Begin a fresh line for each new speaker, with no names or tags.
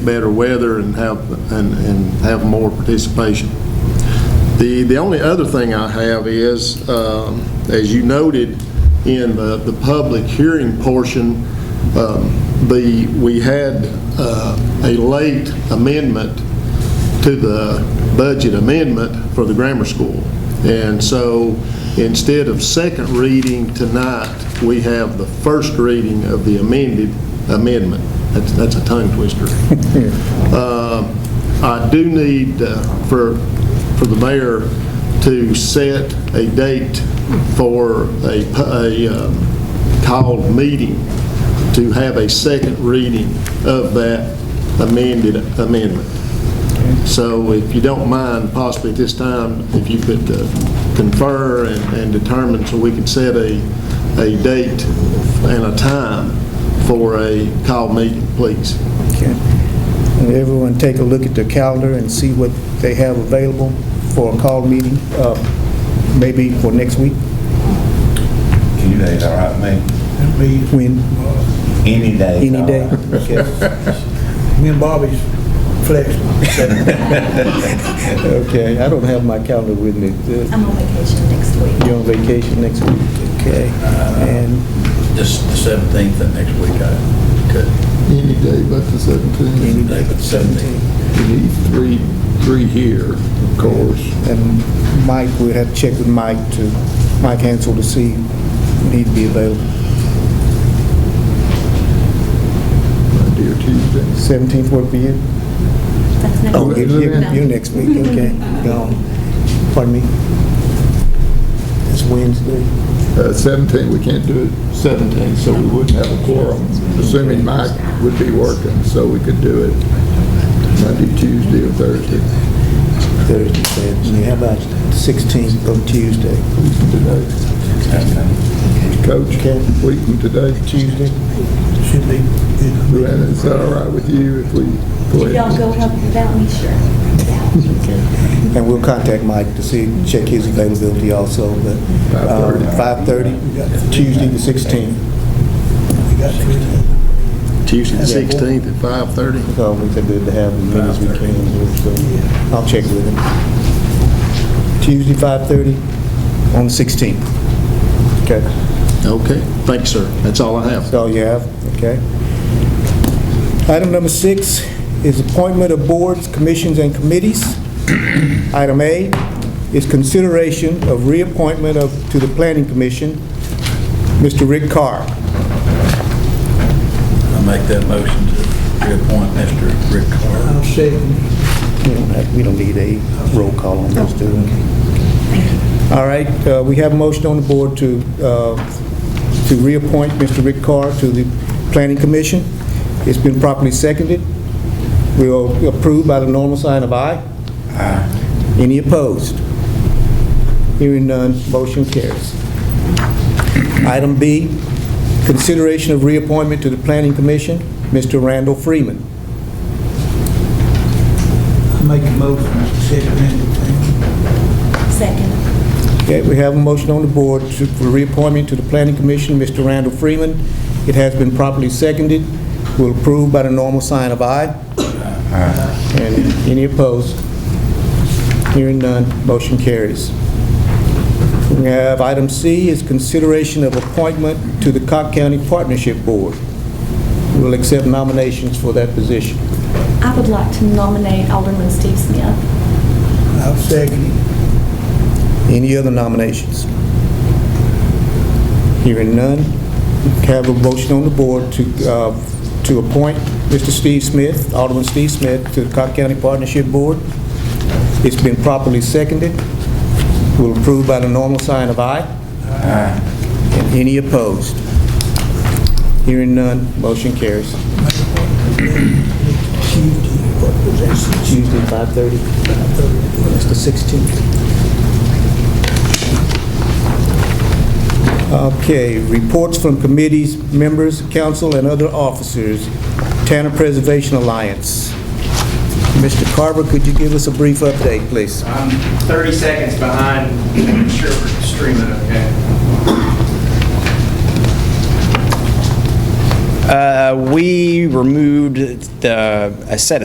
better weather and have, and, and have more participation. The, the only other thing I have is, um, as you noted in the, the public hearing portion, um, the, we had uh, a late amendment to the budget amendment for the grammar school. And so instead of second reading tonight, we have the first reading of the amended amendment. That's, that's a tongue twister. Uh, I do need uh, for, for the mayor to set a date for a, pu- a um, called meeting to have a second reading of that amended amendment. So if you don't mind, possibly at this time, if you could uh, confer and and determine so we can set a, a date and a time for a call meeting, please.
Okay. And everyone take a look at their calendar and see what they have available for a call meeting, uh, maybe for next week,
Any day's all right, man.
That'd be
when,
Any day.
any day. Okay.
me and Bobby's flexible.
Okay, I don't have my calendar with me. Uh,
I'm on vacation next week.
You're on vacation next week, okay?
Uh,
And
Just the seventeenth and next week, I could,
Any day but the 17th.
any
day
day
but the seventeenth.
You need three, three here, of course.
And Mike, we'd have to check with Mike to, Mike Hansel to see if he'd be available.
Monday or Tuesday.
17th work for you?
That's next
Oh,
week.
you-
No.
you- you next week, okay. Gone. Pardon me? It's Wednesday.
Uh, 17, we can't do it 17, so we wouldn't have a quorum, assuming Mike would be working, so we could do it Monday, Tuesday, or Thursday.
Thursday, Thursday. How about 16th on Tuesday?
Week from today.
Okay.
Coach, week from today.
Tuesday?
Should be good.
Joanna, is that all right with you if we go
If y'all
ahead?
go help without me, sure.
And we'll contact Mike to see, check his availability also, but um, 5:30, Tuesday the 16th.
We got three.
Tuesday, the 16th at 5:30.
It's always good to have as many as we can, so I'll check with him. Tuesday, 5:30 on the 16th. Okay,
Okay, thank you, sir. That's all I have.
that's all you have, okay? Item number six is appointment of boards, commissions, and committees. Item A is consideration of reappointment of, to the Planning Commission, Mr. Rick Carr.
I make that motion to reappoint Mr. Rick Carter.
I'll second.
We don't have, we don't need a roll call on this, do we? All right, uh, we have a motion on the board to, uh, to reappoint Mr. Rick Carr to the Planning Commission. It's been properly seconded. We are approved by the normal sign of aye. Aye. Any opposed? Hearing none, motion carries. Item B, consideration of reappointment to the Planning Commission, Mr. Randall Freeman.
I Make a motion, second anything.
Second.
Okay, we have a motion on the board to- for reappointment to the Planning Commission, Mr. Randall Freeman. It has been properly seconded. Will approve by the normal sign of aye. And any opposed? Hearing none, motion carries. We have item C is consideration of appointment to the Cock County Partnership Board. We'll accept nominations for that position.
I would like to nominate Alderman Steve Smith.
I'll second it.
Any other nominations? Hearing none, have a motion on the board to, uh, to appoint Mr. Steve Smith, Alderman Steve Smith, to the Cock County Partnership Board. It's been properly seconded. Will approve by the normal sign of aye. And any opposed? Hearing none, motion carries.
Tuesday, what was that, six,
Tuesday, 5:30. That's the 16th. Okay, reports from committees, members, council, and other officers. Tanner Preservation Alliance. Mr. Carver, could you give us a brief update, please?
I'm 30 seconds behind, I'm sure we're streaming, okay? Uh, We removed the, a set of